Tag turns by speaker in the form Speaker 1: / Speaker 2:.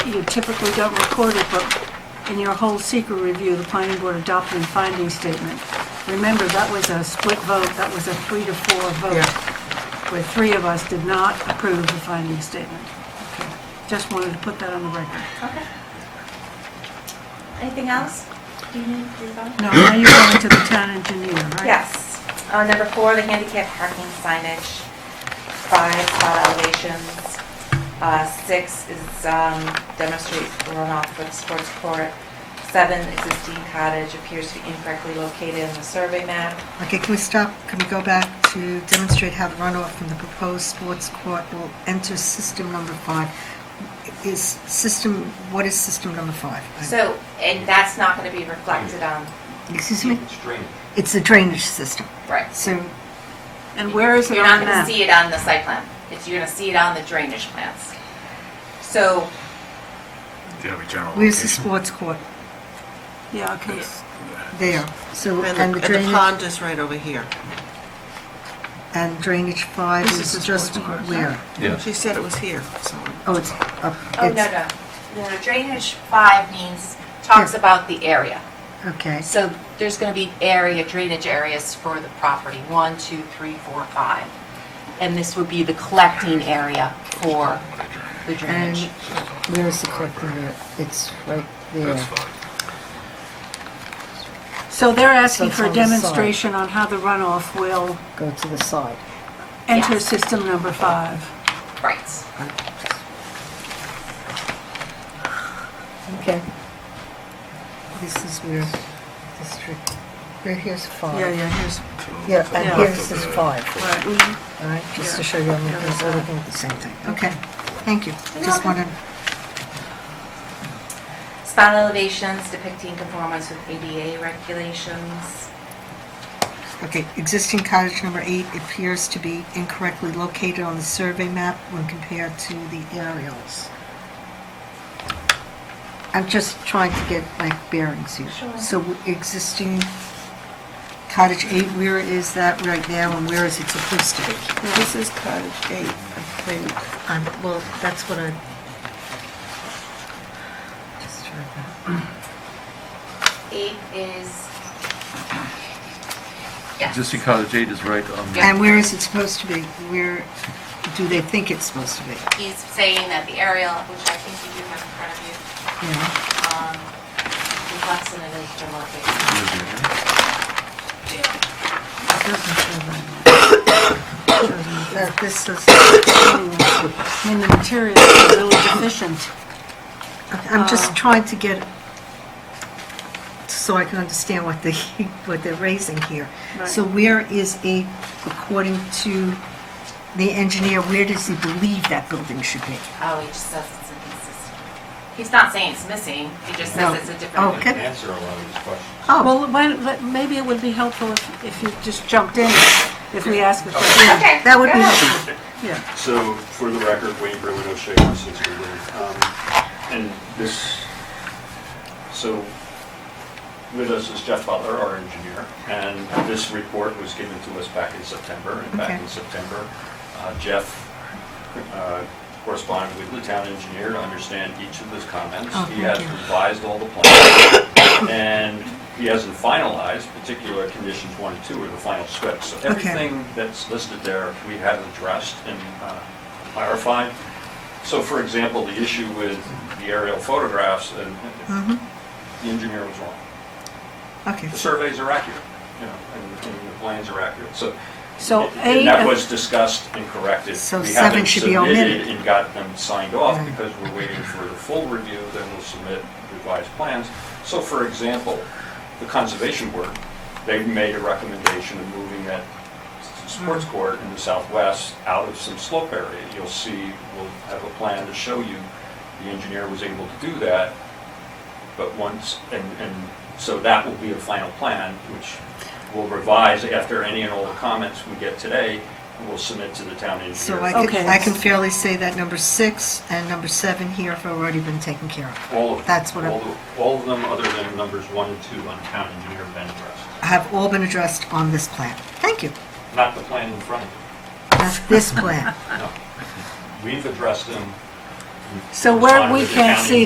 Speaker 1: you typically don't record it, but in your whole secret review, the planning board adopted a finding statement. Remember, that was a split vote, that was a three to four vote, where three of us did not approve the finding statement. Okay. Just wanted to put that on the record.
Speaker 2: Okay. Anything else? Do you need to go?
Speaker 1: No, now you're going to the town engineer, right?
Speaker 2: Yes. Uh, Number four, the handicap parking signage. Five, spot elevations. Uh, Six is um, demonstrate runoff for the sports court. Seven, existing cottage appears to be incorrectly located in the survey map.
Speaker 3: Okay, can we stop, can we go back to demonstrate how the runoff from the proposed sports court will enter system number five? Is system, what is system number five?
Speaker 2: So, and that's not going to be reflected on,
Speaker 3: Excuse me?
Speaker 4: Strange.
Speaker 3: It's the drainage system.
Speaker 2: right.
Speaker 3: So,
Speaker 1: And where is it
Speaker 2: You're not
Speaker 1: on
Speaker 2: gonna
Speaker 1: that?
Speaker 2: see it on the site plan. It's, you're gonna see it on the drainage plans. So,
Speaker 3: where's the sports court?
Speaker 1: Yeah, okay, s-
Speaker 3: There. So, and the
Speaker 5: And the- and the
Speaker 3: drainage,
Speaker 5: pond is right over here.
Speaker 3: and drainage five
Speaker 1: This is the
Speaker 3: is just
Speaker 1: sports court.
Speaker 3: where?
Speaker 4: Yeah.
Speaker 5: She said it was here, so.
Speaker 3: Oh, it's up.
Speaker 2: oh, no, no. No, drainage five means, talks
Speaker 3: Yeah.
Speaker 2: about the area.
Speaker 3: Okay,
Speaker 2: So there's gonna be area, drainage areas for the property, one, two, three, four, five.
Speaker 6: And this would be the collecting area for the
Speaker 3: and
Speaker 6: drainage.
Speaker 3: where is the court? It's right there.
Speaker 1: so they're asking
Speaker 3: So it's
Speaker 1: for a
Speaker 3: on the side.
Speaker 1: demonstration on how the runoff will
Speaker 3: Go to the side.
Speaker 1: enter
Speaker 2: Yes.
Speaker 1: system number five.
Speaker 2: Right.
Speaker 3: Okay. This is where district, where here's five.
Speaker 1: Yeah, yeah, here's,
Speaker 3: Yeah,
Speaker 1: Yeah.
Speaker 3: and here's this five,
Speaker 1: right.
Speaker 2: Mm-hmm.
Speaker 3: all right, just to show you, I'm looking we're looking at the same thing. Okay, thank you. Just wanted,
Speaker 2: Spot elevations depicting conformance with ADA regulations.
Speaker 3: okay, existing cottage number eight appears to be incorrectly located on the survey map when compared to the aerials. I'm just trying to get my bearings here.
Speaker 2: Sure.
Speaker 3: So existing cottage eight, where is that right now and where is it supposed to be?
Speaker 5: This is cottage eight, I think.
Speaker 3: Um, well, that's what I. Just try that.
Speaker 2: Eight is, yes.
Speaker 4: Existing cottage eight is right on, the
Speaker 3: And where is it supposed to be? Where do they think it's supposed to be?
Speaker 2: He's saying that the aerial, which I think you do have in front of you,
Speaker 3: Yeah.
Speaker 2: um, reflects an illusion of location.
Speaker 3: That this is,
Speaker 1: I mean, the materials are really deficient.
Speaker 3: I'm
Speaker 1: Oh.
Speaker 3: just trying to get, so I can understand what they, what they're raising here.
Speaker 1: Right.
Speaker 3: So where is a, according to the engineer, where does he believe that building should be?
Speaker 2: Oh, he just says it's inconsistent. He's not saying it's missing, he just
Speaker 3: No. Oh,
Speaker 2: says it's a different.
Speaker 3: Okay.
Speaker 4: Answer a lot of these questions.
Speaker 3: Oh,
Speaker 1: Well, why don't- let- maybe it would be helpful if if you just jumped in, if we asked a question.
Speaker 2: Okay.
Speaker 3: that would
Speaker 2: go
Speaker 3: be
Speaker 2: ahead.
Speaker 3: helpful.
Speaker 1: Yeah,
Speaker 7: So, for the record, Wayne Berwin O'Shea, Washington State um, and this, so with us is Jeff Butler, our engineer, and this report was given to us back in September, and back
Speaker 3: Okay.
Speaker 7: in September, uh, Jeff uh, corresponded with the town engineer to understand each of those comments.
Speaker 3: Oh,
Speaker 7: He
Speaker 3: thank
Speaker 7: has
Speaker 3: you.
Speaker 7: revised all the plans, and he hasn't finalized particular conditions one and two, or the final script, so everything that's listed there, we have addressed and uh, clarified. So for example, the issue with the aerial photographs, and
Speaker 3: Mhm.
Speaker 7: the engineer was wrong.
Speaker 3: Okay,
Speaker 7: The surveys are accurate, you know, and and the plans are accurate, so.
Speaker 1: So eight
Speaker 7: And that
Speaker 1: of-
Speaker 7: was discussed and corrected.
Speaker 3: So
Speaker 7: We
Speaker 3: seven
Speaker 7: haven't
Speaker 3: should be Mm.
Speaker 7: submitted
Speaker 3: omitted.
Speaker 7: And got them signed off
Speaker 3: Right.
Speaker 7: because we're waiting for the full review, then we'll submit revised plans. So for example, the conservation board, they made a recommendation of moving that s- sports
Speaker 3: Mm.
Speaker 7: court in the southwest out of some slope area. You'll see, we'll have a plan to show you, the engineer was able to do that, but once, and, and so that will be a final plan, which we'll revise after any and all the comments we get today, and we'll submit to the town engineer.
Speaker 3: so I can,
Speaker 1: Okay.
Speaker 3: I can fairly say that number six and number seven here have already been taken care of.
Speaker 7: All of them.
Speaker 3: That's what I'm-
Speaker 7: All of- All of them, other than numbers one and two on town engineer have been addressed.
Speaker 3: have all been addressed on this plan. Thank you.
Speaker 7: Not the plan in front of you,
Speaker 3: That's this plan.
Speaker 7: no. We've addressed them,
Speaker 1: So
Speaker 7: It's
Speaker 1: where
Speaker 7: audited
Speaker 1: we
Speaker 7: the
Speaker 1: can't
Speaker 7: county.
Speaker 1: see